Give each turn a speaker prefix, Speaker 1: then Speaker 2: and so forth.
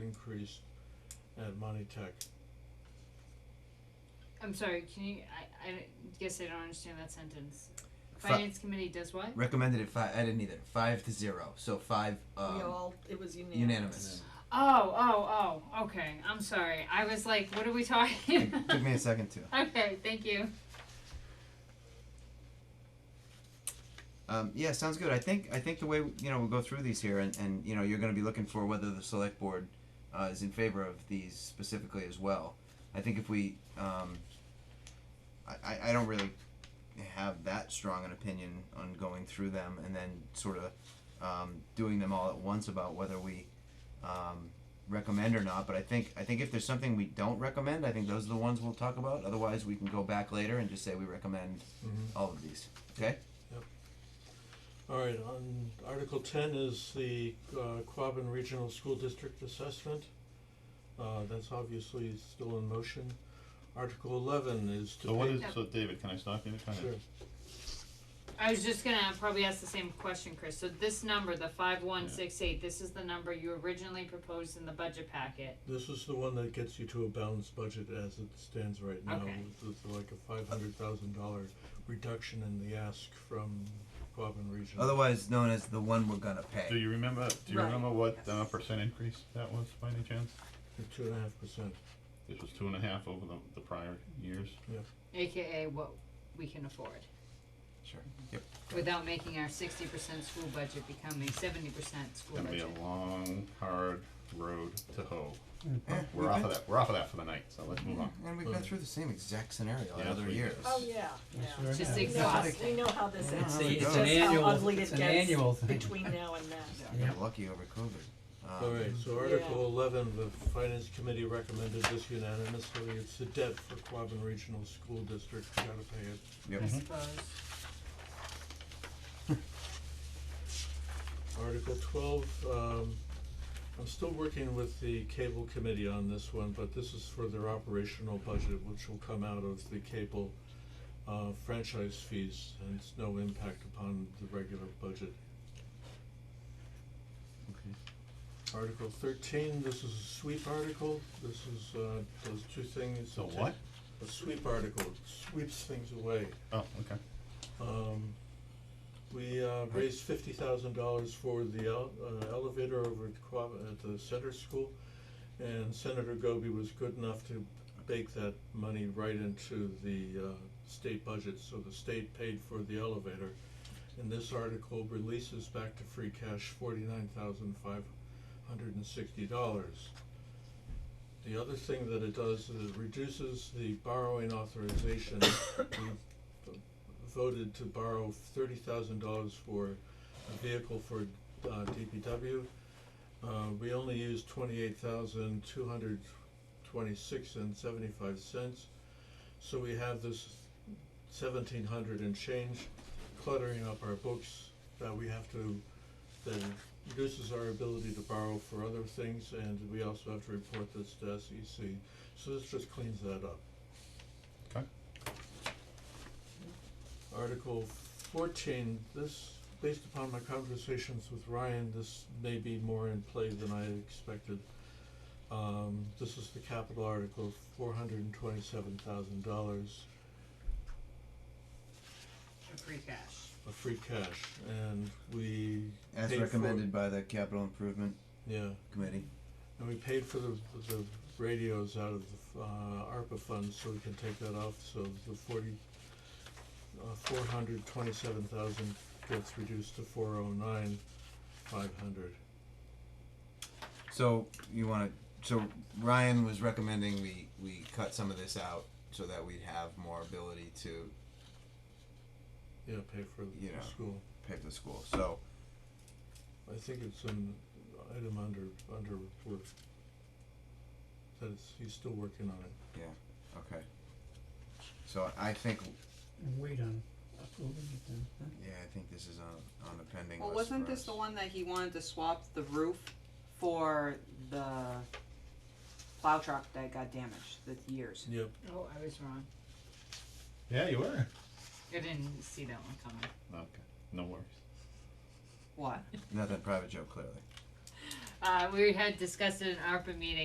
Speaker 1: increase at Monty Tech.
Speaker 2: I'm sorry, can you, I, I don't- guess I don't understand that sentence.
Speaker 3: Fi-
Speaker 2: Finance committee does what?
Speaker 3: recommended it five. I didn't either. Five to zero. So five. Um,
Speaker 4: we all, it was unanimous.
Speaker 3: unanimous.
Speaker 2: Oh, oh, oh, okay, I'm sorry, I was like, what are we talking
Speaker 3: It took me a second to.
Speaker 2: Okay, thank you.
Speaker 3: Um, yeah, sounds good. I think I think the way you know we'll go through these here, and, and you know you're going to be looking for whether the select board uh, is in favor of these specifically as well. I think if we, um, I- I I don't really have that strong an opinion on going through them and then sort of um, doing them all at once about whether we um, recommend or not. But I think I think if there's something we don't recommend, I think those are the ones we'll talk about. Otherwise, we can go back later and just say we recommend
Speaker 1: Mhm.
Speaker 3: all of these. Okay.
Speaker 1: Alright, on Article ten is the uh Quabbin Regional School District Assessment. Uh that's obviously still in motion. Article eleven is to
Speaker 5: So what
Speaker 1: pay-
Speaker 5: is, so David, can I stop you? Kind
Speaker 1: Sure.
Speaker 5: of,
Speaker 2: I was just gonna probably ask the same question, Chris, so this number, the five one six eight, this is the number you originally proposed in the budget packet.
Speaker 1: This is the one that gets you to a balanced budget as it stands right now,
Speaker 2: Okay.
Speaker 1: with with like a five hundred thousand dollar reduction in the ask from Quabbin Regional.
Speaker 3: otherwise known as the one we're gonna
Speaker 5: do
Speaker 3: pay.
Speaker 5: you remember, do you
Speaker 4: Right.
Speaker 5: remember what, uh, percent increase that was by any chance?
Speaker 1: Two and a half percent,
Speaker 5: This was two and a half over the, the prior years.
Speaker 2: AKA what we can afford,
Speaker 3: Sure. Yep.
Speaker 2: without making our sixty percent school budget become a seventy percent school
Speaker 5: Gonna be
Speaker 2: budget.
Speaker 5: a long, hard road to hoe.
Speaker 3: Yeah,
Speaker 5: We're off of that, we're off of that for the night, so let's move on.
Speaker 3: And we've been through the same exact scenario
Speaker 5: Yeah,
Speaker 3: another
Speaker 5: that's
Speaker 3: year.
Speaker 4: Oh, yeah, yeah.
Speaker 6: Sure
Speaker 2: Just
Speaker 6: enough.
Speaker 4: We know how-
Speaker 2: exhausting.
Speaker 4: We know how this
Speaker 3: Yeah,
Speaker 4: ends,
Speaker 3: there we
Speaker 4: it's
Speaker 3: go.
Speaker 4: just
Speaker 3: It's
Speaker 6: an
Speaker 4: how
Speaker 6: annual-
Speaker 4: ugly
Speaker 6: it's
Speaker 4: it
Speaker 6: an annual
Speaker 4: gets
Speaker 6: thing.
Speaker 4: between now and then.
Speaker 3: We
Speaker 6: Yeah.
Speaker 3: got lucky over COVID. Um,
Speaker 1: alright, so
Speaker 4: Yeah.
Speaker 1: Article eleven, the Finance Committee recommended this unanimously, it's the debt for Quabbin Regional School District, you gotta pay it.
Speaker 3: Yep.
Speaker 2: I suppose.
Speaker 1: Article twelve, um, I'm still working with the cable committee on this one, but this is for their operational budget, which will come out of the cable uh franchise fees, and it's no impact upon the regular budget.
Speaker 3: Okay.
Speaker 1: Article thirteen, this is a sweep article, this is uh those two things.
Speaker 5: So what?
Speaker 1: A sweep article, it sweeps things away.
Speaker 5: Oh, okay.
Speaker 1: Um, we, uh, raised fifty thousand dollars for the el- uh, elevator over at Quab, at the center school. And Senator Goby was good enough to bake that money right into the, uh, state budget, so the state paid for the elevator. And this article releases back to free cash forty-nine thousand five hundred and sixty dollars. The other thing that it does is it reduces the borrowing authorization. We voted to borrow thirty thousand dollars for a vehicle for uh DPW. Uh we only used twenty-eight thousand two hundred twenty-six and seventy-five cents. So we have this seventeen hundred and change cluttering up our books that we have to, that reduces our ability to borrow for other things and we also have to report this to SEC. So this just cleans that up.
Speaker 5: Okay.
Speaker 1: Article fourteen, this, based upon my conversations with Ryan, this may be more in play than I expected. Um, this is the capital article, four hundred and twenty-seven thousand dollars
Speaker 2: A free cash.
Speaker 1: of free cash, and we
Speaker 3: As
Speaker 1: paid for-
Speaker 3: recommended by the capital improvement
Speaker 1: yeah,
Speaker 3: committee.
Speaker 1: and we paid for the, the radios out of the, uh, ARPA funds, so we can take that off, so the forty, uh, four hundred twenty-seven thousand gets reduced to four oh nine, five hundred.
Speaker 3: So you want to? So Ryan was recommending we we cut some of this out so that we'd have more ability to
Speaker 1: Yeah, pay for the
Speaker 3: Yeah.
Speaker 1: school.
Speaker 3: pay for the school. So
Speaker 1: I think it's an item under, under work. That is, he's still working on it.
Speaker 3: okay. So I think
Speaker 6: And wait on approving it then, huh?
Speaker 3: yeah, I think this is on on the pending
Speaker 7: Well,
Speaker 3: list
Speaker 7: wasn't
Speaker 3: for
Speaker 7: this
Speaker 3: us.
Speaker 7: the one that he wanted to swap the roof for the plow truck that got damaged the years?
Speaker 1: Yep.
Speaker 2: Oh, I was wrong,
Speaker 5: Yeah, you were.
Speaker 2: I didn't see that one coming.
Speaker 5: Okay, no worries.
Speaker 7: What?
Speaker 3: Not that private joke, clearly.
Speaker 2: Uh, we had discussed it in ARPA meeting,